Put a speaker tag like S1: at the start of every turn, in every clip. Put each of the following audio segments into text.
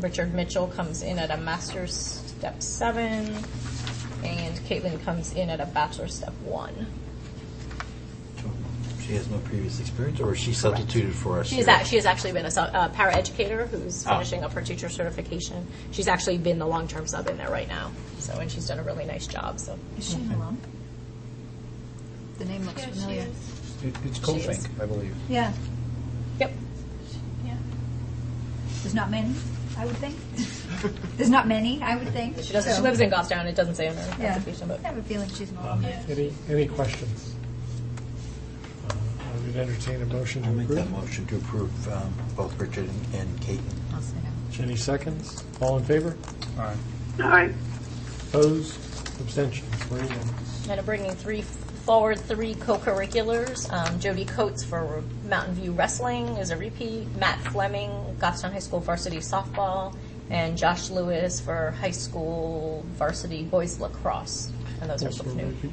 S1: Richard Mitchell comes in at a master's step seven, and Caitlin comes in at a bachelor's step one.
S2: She has no previous experience, or she substituted for us?
S1: She's
S2: here?
S1: act, she has actually been a sub, uh, paraeducator who's
S2: Ah.
S1: finishing up her teacher certification. She's actually been the long-term sub in there right now. So, and she's done a really nice job, so.
S3: Is she in a lump? The name looks familiar.
S4: It- It's
S1: She is.
S4: Colfink, I believe.
S3: Yeah,
S1: Yep.
S3: yeah. There's not many, I would think. There's not many, I would think.
S1: She does, she
S3: So-
S1: lives in Goffstown. It doesn't say on her
S3: Yeah.
S1: application,
S3: I
S1: but
S3: have a feeling she's in a
S4: Um,
S3: lump.
S4: Any, any questions? Uh, I would entertain a motion to
S2: I'll make that
S4: approve.
S2: motion to approve um, both Richard and- and Caitlin.
S3: I'll say no.
S4: Jenny seconds. All in favor?
S2: Aye.
S5: Aye.
S4: Opposed? Abstentions? Three unanimous.
S1: and I'm bringing three forward, three co-curriculars. Um, Jody Coates for Mountain View Wrestling is a repeat. Matt Fleming, Goffstown High School varsity softball, and Josh Lewis for high school varsity boys lacrosse. And those are
S4: Also
S1: both new.
S4: repeat.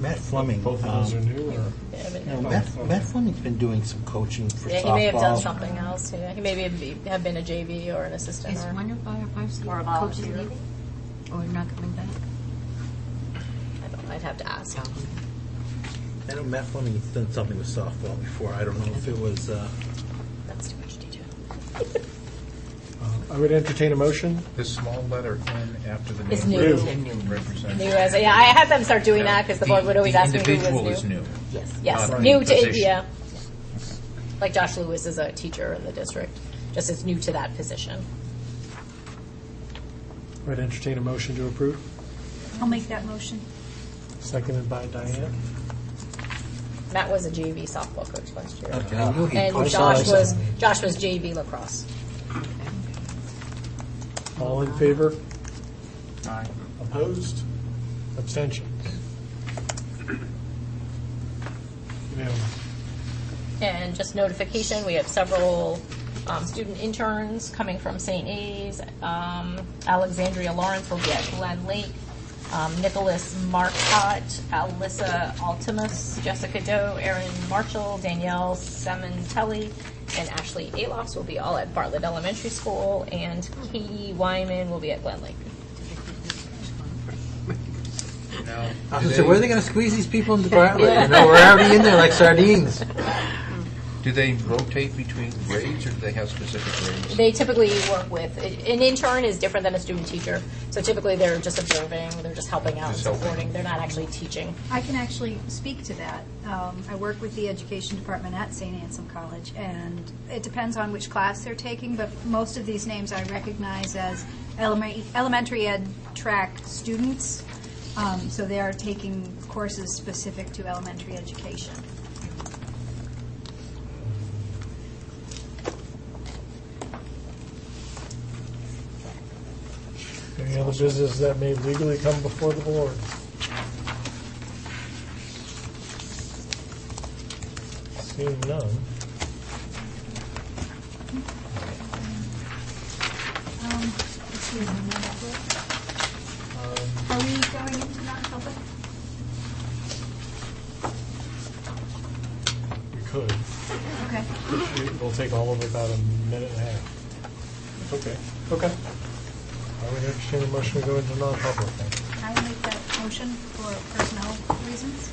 S2: Matt Fleming.
S4: Both of those
S2: um,
S4: are new, or?
S1: Yeah, I mean,
S2: Matt Matt Fleming's been doing some coaching for softball.
S1: Yeah, he may have done something else. Yeah, he maybe have be- have been a JV or an assistant.
S3: Is
S1: or-
S3: one of our varsity
S1: Or a
S3: coaches
S1: volunteer.
S3: leaving? Or not coming back?
S1: I don't. know, I'd have to ask.
S2: I know Matt Fleming's done something with softball before. I don't know if it was, uh,
S1: That's too much detail.
S4: I would entertain a motion.
S6: The small letter N after the name.
S1: It's new.
S6: Represents.
S1: New as yeah, I had them start doing that because the board would always ask me who
S6: individual
S1: was
S6: is
S1: new.
S6: new.
S1: Yes, yes,
S2: Uh,
S6: Not
S1: new
S6: the
S1: to
S6: position.
S1: yeah. Like Josh Lewis is a teacher in the district, just is new to that position.
S4: I would entertain a motion to approve.
S3: I'll make that motion.
S4: Seconded by Diane.
S1: Matt was a JV softball coach last year,
S2: okay, I knew he
S1: and
S2: coached
S1: Josh
S2: us.
S1: was Josh was JV lacrosse.
S4: All in favor?
S6: Aye.
S4: Opposed? Abstentions? Unanimous.
S1: And just notification, we have several um, student interns coming from St. A's. Um, Alexandria Lawrence will be at Glen Lake. Um, Nicholas Marcotte, Alyssa Altimus, Jessica Doe, Erin Marshall, Danielle Sementelli, and Ashley Alofs will be all at Bartlett Elementary School, and Katie Wyman will be at Glen Lake.
S2: I
S6: Now,
S2: was
S6: do
S2: gonna say, where are
S6: they-
S2: they going to squeeze these people into the Bartlett? You know, we're already in there like sardines.
S6: Do they rotate between grades or do they have specific grades?
S1: They typically work with, an intern is different than a student teacher, so typically they're just observing, they're just helping out, and
S6: Just helping.
S1: supporting, they're not actually teaching.
S3: I can actually speak to that. Um, I work with the education department at St. Anselm College, and it depends on which class they're taking, but most of these names I recognize as elema- elementary ed track students. Um, So they are taking courses specific to elementary education.
S4: Any other business that may legally come before the board? Seeing none.
S3: Um, let's see,
S4: um,
S3: Are we going into non-public?
S4: We could.
S3: Okay.
S4: It'll take all of about a minute and a half. Okay. Okay. I would entertain a motion to go into non-public. then.
S3: I will make that motion for personnel reasons.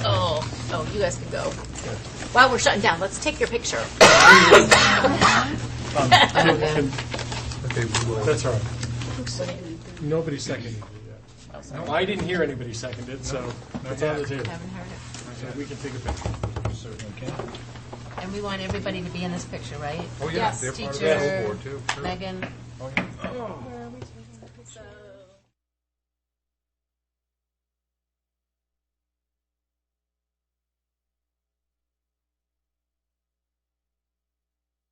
S1: Oh, oh, you guys can go. While we're shutting down, let's take your picture.
S2: Okay, we will.
S4: That's all right. Nobody seconded it yet.
S1: Oh,
S4: No,
S1: sorry.
S4: I didn't hear anybody second it, so it's on the table. Haven't heard it. So we can take a picture.
S7: And we want everybody to be in this picture, right?
S6: Oh, yeah,
S1: Yes,
S6: they're part of the
S1: teacher.
S6: school board too. sure.
S7: Megan,
S6: Oh, yeah.
S1: So